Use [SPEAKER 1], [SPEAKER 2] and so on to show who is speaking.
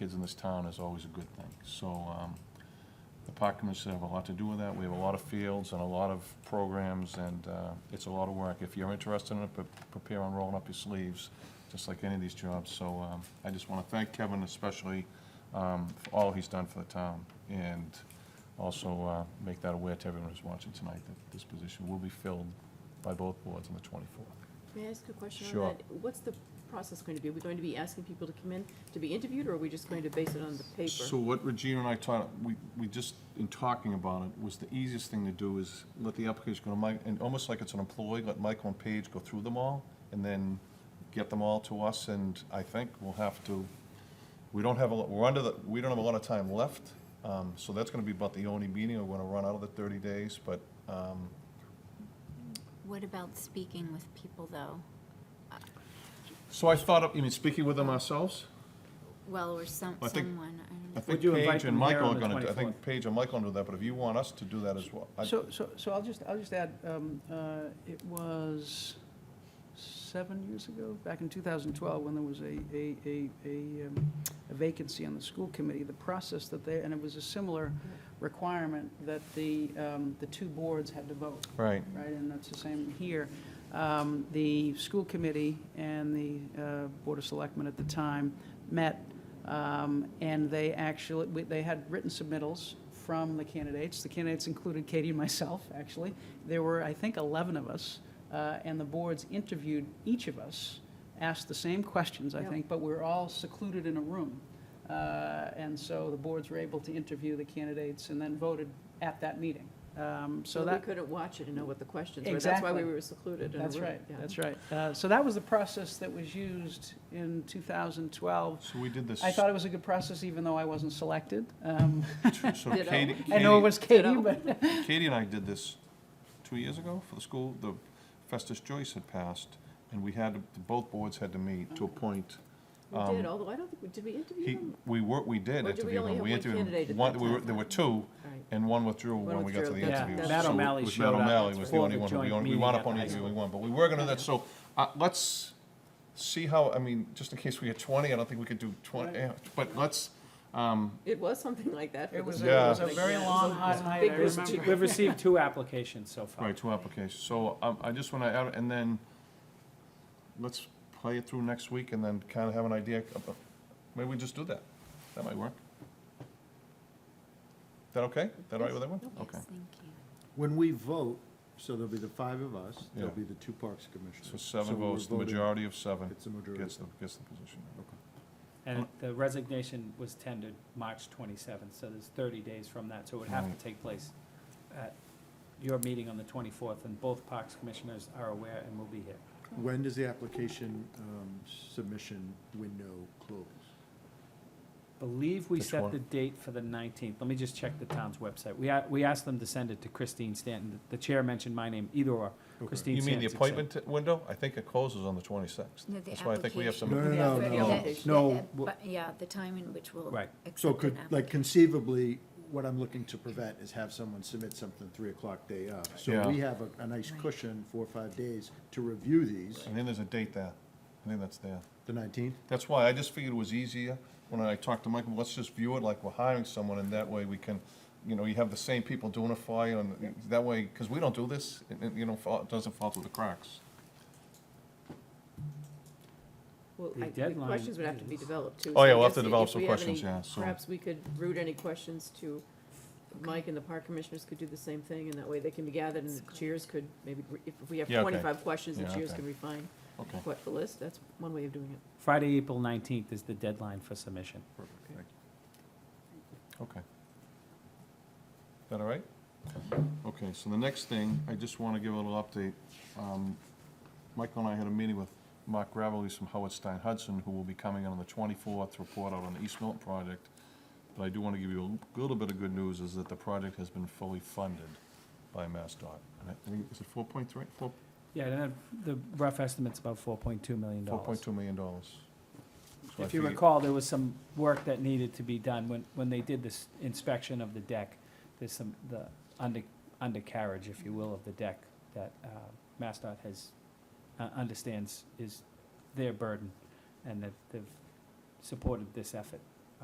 [SPEAKER 1] kids in this town is always a good thing. So um, the park commission have a lot to do with that. We have a lot of fields and a lot of programs, and uh, it's a lot of work. If you're interested in it, pre- prepare on rolling up your sleeves, just like any of these jobs. So um, I just want to thank Kevin especially um, for all he's done for the town, and also uh, make that aware to everyone who's watching tonight that this position will be filled by both boards on the 24th.
[SPEAKER 2] May I ask a question on
[SPEAKER 1] Sure.
[SPEAKER 2] that? What's the process going to be? Are we going to be asking people to come in to be interviewed, or are we just going to base it on the
[SPEAKER 1] So
[SPEAKER 2] paper?
[SPEAKER 1] what Regina and I taught, we, we just, in talking about it, was the easiest thing to do is let the application go to Mike, and almost like it's an employee, let Michael and Paige go through them all, and then get them all to us, and I think we'll have to, we don't have a, lot- we're under the, we don't have a lot of time left, um, so that's gonna be about the only meeting, we're gonna run out of the thirty days, but, um,
[SPEAKER 3] What about speaking with people, though?
[SPEAKER 1] so I thought, of- you mean, speaking with them ourselves?
[SPEAKER 3] Well, or some,
[SPEAKER 1] I think-
[SPEAKER 3] someone, I don't
[SPEAKER 1] I
[SPEAKER 3] know.
[SPEAKER 1] think
[SPEAKER 4] you invite
[SPEAKER 1] Paige and
[SPEAKER 4] them here
[SPEAKER 1] Michael
[SPEAKER 4] on
[SPEAKER 1] are
[SPEAKER 4] the
[SPEAKER 1] gonna, do- I
[SPEAKER 4] 24th?
[SPEAKER 1] think Paige and Michael will do that, but if you want us to do that as well, I,
[SPEAKER 4] So, so, so I'll just, I'll just add, um, uh, it was seven years ago, back in 2012, when there was a, a, a, a um, a vacancy on the school committee, the process that they, and it was a similar requirement that the, um, the two boards had to vote,
[SPEAKER 1] right,
[SPEAKER 4] right? And that's the same here. Um, The school committee and the uh, Board of Selectmen at the time met, um, and they actually, we- they had written submittals from the candidates. The candidates included Katie and myself, actually. There were, I think, 11 of us, uh, and the boards interviewed each of us, asked the same questions, I
[SPEAKER 2] Yep.
[SPEAKER 4] think, but we were all secluded in a room. Uh, And so the boards were able to interview the candidates and then voted at that meeting. Um, So
[SPEAKER 2] we
[SPEAKER 4] that,
[SPEAKER 2] couldn't watch it and know what the questions were. That's why we
[SPEAKER 4] Exactly.
[SPEAKER 2] were secluded in a room.
[SPEAKER 4] that's right,
[SPEAKER 2] yeah.
[SPEAKER 4] that's right. Uh, So that was the process that was used in 2012.
[SPEAKER 1] so we did this.
[SPEAKER 4] I thought it was a good process, even though I wasn't selected. Um,
[SPEAKER 1] So
[SPEAKER 2] Ditto.
[SPEAKER 1] Katie,
[SPEAKER 4] I know
[SPEAKER 1] Katie,
[SPEAKER 4] it was Katie,
[SPEAKER 2] Ditto.
[SPEAKER 4] but,
[SPEAKER 1] Katie and I did this two years ago for the school, the Festus Joyce had passed, and we had, to- both boards had to meet to appoint.
[SPEAKER 2] We did, although I don't think, we did we interview
[SPEAKER 1] Um, He,
[SPEAKER 2] them?
[SPEAKER 1] we were, we did
[SPEAKER 2] Or did we
[SPEAKER 1] interview
[SPEAKER 2] only
[SPEAKER 1] him,
[SPEAKER 2] have
[SPEAKER 1] we
[SPEAKER 2] one
[SPEAKER 1] interviewed
[SPEAKER 2] candidate
[SPEAKER 1] him,
[SPEAKER 2] at
[SPEAKER 1] one,
[SPEAKER 2] that
[SPEAKER 1] we were,
[SPEAKER 2] time?
[SPEAKER 1] there were two,
[SPEAKER 2] All right.
[SPEAKER 1] and one withdrew when we got to
[SPEAKER 2] withdrew,
[SPEAKER 1] the
[SPEAKER 2] that's-
[SPEAKER 1] interviews.
[SPEAKER 2] that's-
[SPEAKER 4] Matt
[SPEAKER 1] So it
[SPEAKER 4] O'Malley
[SPEAKER 1] was
[SPEAKER 4] showed up
[SPEAKER 1] Matt O'Malley was the
[SPEAKER 4] for
[SPEAKER 1] only
[SPEAKER 4] the
[SPEAKER 1] one, we
[SPEAKER 4] joint
[SPEAKER 1] only, we
[SPEAKER 4] meeting
[SPEAKER 1] wound
[SPEAKER 4] at
[SPEAKER 1] up only
[SPEAKER 4] the high
[SPEAKER 1] interviewing one, but we were gonna do that, so, uh, let's see how, I mean, just in case we get twenty, I don't think we could do twenty, eh, but let's, um,
[SPEAKER 2] It was something like that. for
[SPEAKER 4] It
[SPEAKER 2] the
[SPEAKER 4] was, a-
[SPEAKER 2] school
[SPEAKER 4] it was a
[SPEAKER 2] committee.
[SPEAKER 4] very
[SPEAKER 2] Yeah, it was
[SPEAKER 4] long,
[SPEAKER 2] a-
[SPEAKER 4] hot night,
[SPEAKER 2] big
[SPEAKER 4] I
[SPEAKER 2] was-
[SPEAKER 4] remember.
[SPEAKER 5] We've received two applications so far.
[SPEAKER 1] Right, two applications. So um, I just want to add, and then, let's play it through next week and then kind of have an idea. of- of- Maybe we just do that. That might work. Is that okay? Is that all right with everyone?
[SPEAKER 3] Yes,
[SPEAKER 1] Okay.
[SPEAKER 3] thank you.
[SPEAKER 6] When we vote, so there'll be the five of us, there'll
[SPEAKER 1] Yeah.
[SPEAKER 6] be the two parks commissioners.
[SPEAKER 1] So seven
[SPEAKER 6] we're
[SPEAKER 1] votes, the
[SPEAKER 6] voting-
[SPEAKER 1] majority of seven
[SPEAKER 6] It's a majority.
[SPEAKER 1] gets the, gets the position.
[SPEAKER 5] And the resignation was tendered March twenty-seventh, so there's thirty days from that, so it would have to take place at your meeting on the twenty-fourth, and both parks commissioners are aware and will be here.
[SPEAKER 6] When does the application um, submission window close?
[SPEAKER 5] Believe we
[SPEAKER 1] Which
[SPEAKER 5] set
[SPEAKER 1] one?
[SPEAKER 5] the date for the nineteenth, let me just check the town's website. We, a- we asked them to send it to Christine Stanton, the chair mentioned my name, either or,
[SPEAKER 6] Okay.
[SPEAKER 5] Christine
[SPEAKER 1] You mean
[SPEAKER 5] Stanton.
[SPEAKER 1] the appointment window? I think it closes on the twenty-sixth.
[SPEAKER 3] No, the
[SPEAKER 1] That's why I think we have
[SPEAKER 6] No,
[SPEAKER 1] some,
[SPEAKER 6] no, no,
[SPEAKER 2] Yeah,
[SPEAKER 6] no,
[SPEAKER 2] yeah,
[SPEAKER 6] no. well,
[SPEAKER 3] But, yeah, the time in which we'll
[SPEAKER 5] Right.
[SPEAKER 6] So
[SPEAKER 3] accept
[SPEAKER 6] could,
[SPEAKER 3] an
[SPEAKER 6] like
[SPEAKER 3] applicant.
[SPEAKER 6] conceivably, what I'm looking to prevent is have someone submit something three o'clock day of. So
[SPEAKER 1] Yeah.
[SPEAKER 6] we have a, a nice
[SPEAKER 3] Right.
[SPEAKER 6] cushion, four or five days, to review these,
[SPEAKER 1] and then there's a date there. I think that's there.
[SPEAKER 6] the nineteenth.
[SPEAKER 1] That's why I just figured it was easier when I talked to Michael, let's just view it like we're hiring someone and that way we can, you know, you have the same people doing it for you and that way, because we don't do this, it, it, you know, fall- it doesn't fall through the cracks.
[SPEAKER 2] Well,
[SPEAKER 5] The
[SPEAKER 2] I- the
[SPEAKER 5] deadline
[SPEAKER 2] questions would have to be
[SPEAKER 5] is-
[SPEAKER 2] developed, too.
[SPEAKER 1] Oh,
[SPEAKER 2] so
[SPEAKER 1] yeah,
[SPEAKER 2] I
[SPEAKER 1] we'll have
[SPEAKER 2] guess
[SPEAKER 1] to
[SPEAKER 2] i-
[SPEAKER 1] develop
[SPEAKER 2] if
[SPEAKER 1] some
[SPEAKER 2] we have
[SPEAKER 1] questions,
[SPEAKER 2] any-
[SPEAKER 1] yeah, so-
[SPEAKER 2] Perhaps we could route any questions to Mike and the park commissioners could do the same thing, and that way they can be gathered, and the chairs could maybe, re- if we have
[SPEAKER 1] Yeah, okay.
[SPEAKER 2] twenty-five questions, the
[SPEAKER 1] Yeah,
[SPEAKER 2] chairs
[SPEAKER 1] okay.
[SPEAKER 2] can refine
[SPEAKER 1] Okay.
[SPEAKER 2] what the list, that's one way of doing it.
[SPEAKER 5] Friday, April nineteenth is the deadline for submission.
[SPEAKER 1] Okay. Is that all right? Okay, so the next thing, I just want to give a little update. Um, Michael and I had a meeting with Mark Gravelly from Howard Stein Hudson, who will be coming in on the 24th, to report out on the East Milton project. But I do want to give you a little bit of good news, is that the project has been fully funded by MassDOT. And I think, is it 4.3, Four-
[SPEAKER 5] Yeah, and that- the rough estimate's about four point two million dollars.
[SPEAKER 1] 4.2 million dollars? So I
[SPEAKER 5] If you
[SPEAKER 1] figure-
[SPEAKER 5] recall, there was some work that needed to be done when, when they did this inspection of the deck. There's some, the under, undercarriage, if you will, of the deck that uh, MassDOT has, uh, understands is their burden, and that they've supported this effort.